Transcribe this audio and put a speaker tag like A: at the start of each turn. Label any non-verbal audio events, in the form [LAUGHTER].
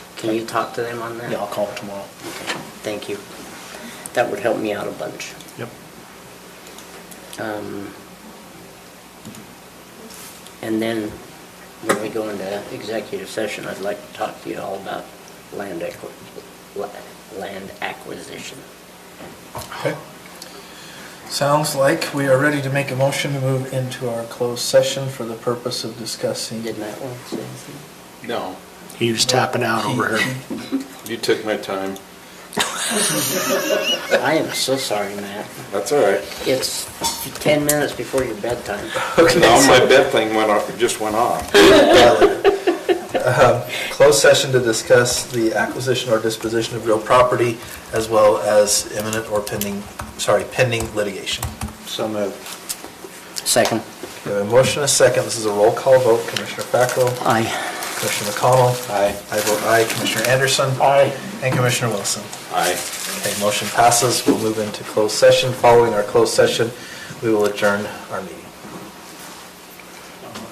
A: Can you talk to them on that?
B: Yeah, I'll call him tomorrow.
A: Okay, Thank you. That would help me out a bunch.
B: Yep.
A: Um, And then, when we go into executive session, I'd like to talk to you all about land acqui- la- land acquisition.
B: Okay. Sounds like we are ready to make a motion to move into our closed session for the purpose of discussing. [LAUGHS]
A: Didn't that one say anything?
C: No,
D: He was tapping out over here.
C: you took my time.
A: I am so sorry, Matt.
C: That's all right.
A: It's 10 minutes before your bedtime.
C: Now my bed thing went off, just went off.
B: Um, Closed session to discuss the acquisition or disposition of real property as well as imminent or pending, sorry, pending litigation.
C: So moved.
A: Second.
B: We have a motion, and a second. This is a roll call vote. Commissioner Fackrell,
A: Aye.
B: Commissioner McConnell.
C: Aye.
B: I vote aye. Commissioner Anderson.
A: Aye.
B: And Commissioner Wilson.
C: Aye.
B: Okay, motion passes. We'll move into closed session. Following our closed session, we will adjourn our meeting.